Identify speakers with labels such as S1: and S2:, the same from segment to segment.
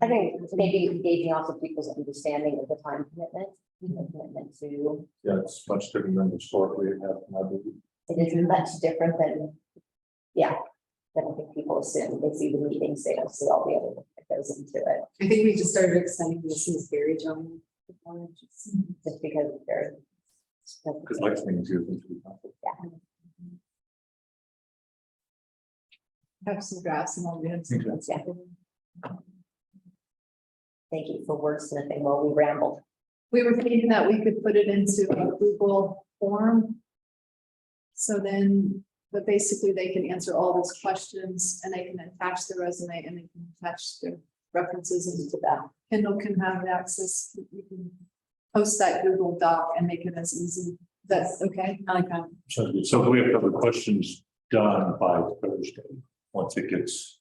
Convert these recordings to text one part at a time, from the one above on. S1: I think maybe engaging also people's understanding of the time commitment, you know, commitment to,
S2: Yeah, it's much different than historically it has, I believe.
S1: it is much different than, yeah. Than I think people assume, they see the meetings, they don't see all the other work that goes into it,
S3: I think we just started extending this in Gary John.
S1: just because they're.
S2: Because next thing is usually. to be helpful.
S3: Have some graphs and all that.
S2: Okay.
S1: Yeah. Thank you for wordsmithing while we rambled.
S3: We were thinking that we could put it into a Google form. So then, but basically they can answer all those questions and they can attach their resume and they can attach their references into that. Kindle can have access, you can post that Google Doc and make it as easy. That's okay. I like that.
S2: Sounds good. So we have to have the questions done by Thursday, once it gets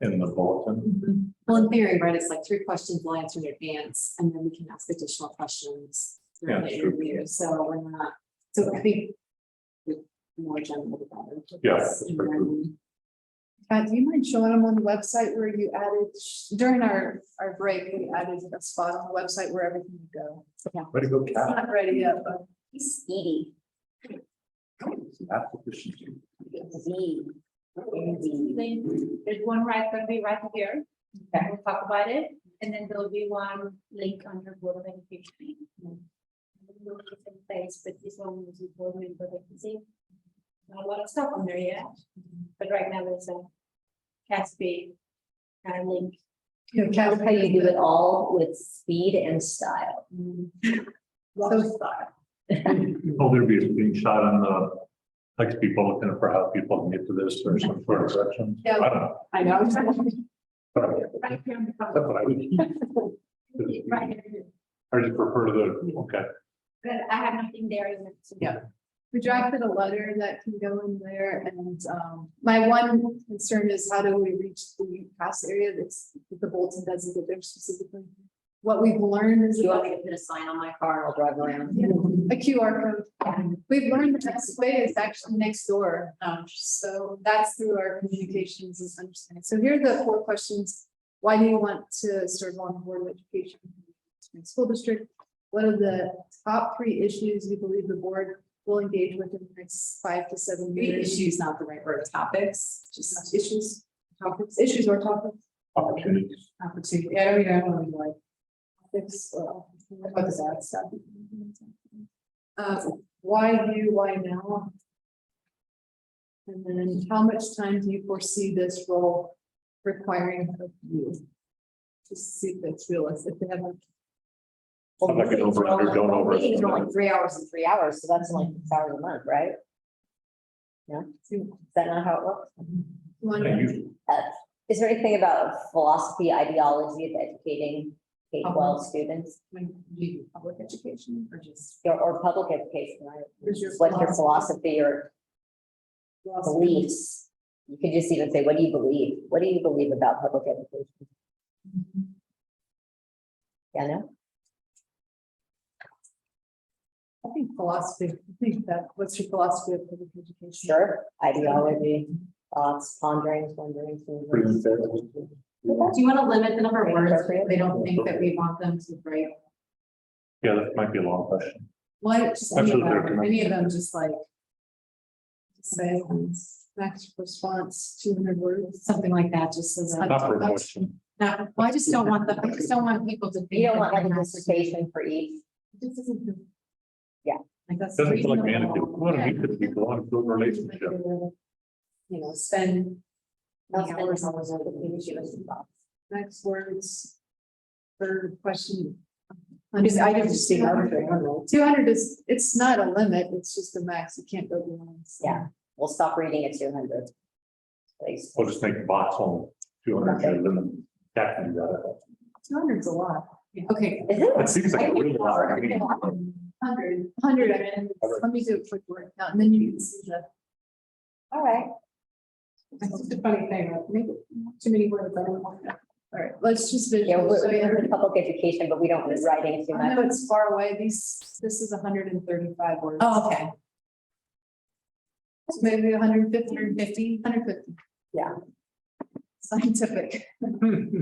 S2: in the bulletin.
S4: Well, in theory, right, it's like three questions we'll answer in advance, and then we can ask additional questions.
S2: Yeah,
S4: throughout the
S2: that's true.
S4: interview. So we're not, so I think. the More general about it.
S2: Yeah, that's very true.
S3: Uh, do you mind showing them on the website where you added, during our, our break, we added a spot on the website where everything would go.
S2: Ready to go,
S3: It's
S2: Kat?
S3: not ready yet, but
S1: Edie.
S2: Oh, Kat, efficiency.
S1: Z. Z.
S5: link. There's one right, gonna be right here. We'll talk about it, and then there'll be one link on your board of education. We'll put in place, but this one is a board member vacancy. Not a lot of stuff on there yet, but right now there's a Caspi uh, link.
S3: you know,
S1: That's how you
S3: Kathy,
S1: do it all with speed and style. Mm-hmm.
S3: so-
S2: Oh, there'll be a screenshot on the, like people looking for how people can get to this or some sort of section. I don't know.
S4: I know.
S2: but I-
S5: Right here on the cover.
S2: That's what I would.
S5: Right here.
S2: I just refer to the, okay.
S5: But I have nothing there. in it.
S3: Yeah. We drafted a letter that can go in there and, um, my one concern is how do we reach the past area that's, that the bulletin doesn't get there specifically? What we've learned is.
S1: You want me to put a sign on my car and I'll drive around?
S3: A QR code. We've learned the best way is actually next door. Um, so that's through our communications and understanding. So here are the four questions. Why do you want to serve on the Board of Education? Spring School District, what are the top three issues you believe the board will engage with in the next five to seven
S4: Maybe
S3: years?
S4: issues, not the right word, topics, just
S3: Just Issues, topics, issues or topics,
S2: Opportunities.
S4: opportunity, I don't even know, like,
S3: topics, or what is that stuff? Uh, why you, why now? And then how much time do you foresee this role requiring of you? Just see if that's realistic, if they have.
S2: Sounds like an over under, don't over.
S1: Meetings are like three hours and three hours, so that's like six hours a month, right? No, is that not how it works?
S2: Yeah,
S3: one.
S2: you-
S1: Uh, Is there anything about philosophy, ideology of educating K twelve students
S4: when you do public education or just.
S1: or, or public education, right?
S3: What's your
S1: What's your philosophy or beliefs? You could just even say, what do you believe? What do you believe about public education? Yeah, no?
S3: I think philosophy, I think that, what's your philosophy of public education?
S1: Sure, ideology, thoughts, ponderings, wonderings.
S2: Pretty
S1: musings.
S2: much there.
S4: Do you want to limit the number of words?
S1: Appropriate.
S4: if They don't think that we want them to break.
S2: Yeah, that might be a long question.
S4: What, just any of
S2: Absolutely
S4: them,
S2: recommend.
S4: any of them, just like. Say, um,
S3: Max response, two hundred words.
S4: something like that, just so that.
S2: Not for a question.
S4: No, well, I just don't want the, I just don't want people to. think
S1: You don't
S4: that
S1: want like a
S4: they're not-
S1: dissertation for each
S4: This isn't the-
S1: Yeah.
S4: Like that's.
S2: Doesn't feel like
S4: reasonable.
S2: management. What a need to be a lot of good relationship.
S4: You know, spend.
S1: That's
S4: Yeah.
S1: been always on the community list box.
S3: Next words. For question.
S4: I'm just, I didn't just think arbitrary, I don't know.
S3: Two hundred is, it's not a limit, it's just a max, you can't go beyond.
S1: Yeah, we'll stop reading at two hundred. Please.
S2: We'll just make a box on two hundred and then that can be that.
S3: Two hundred's a lot.
S4: Okay,
S1: Is it?
S2: That seems like a really lot. I mean,
S3: Hundred, hundred, and let me do a quick word count, and then you can see the.
S1: All right,
S4: that's just a funny thing, right? maybe too many words, I don't want that.
S3: All right, let's just
S1: yeah, we're,
S3: visualize.
S1: we're in public education, but we don't read writing too
S3: I
S1: much.
S3: know it's far away, these, this is hundred and thirty-five words.
S4: Oh, okay.
S3: It's Maybe a hundred and fifty,
S4: Hundred fifty.
S3: hundred and fifty.
S1: Yeah.
S3: Scientific.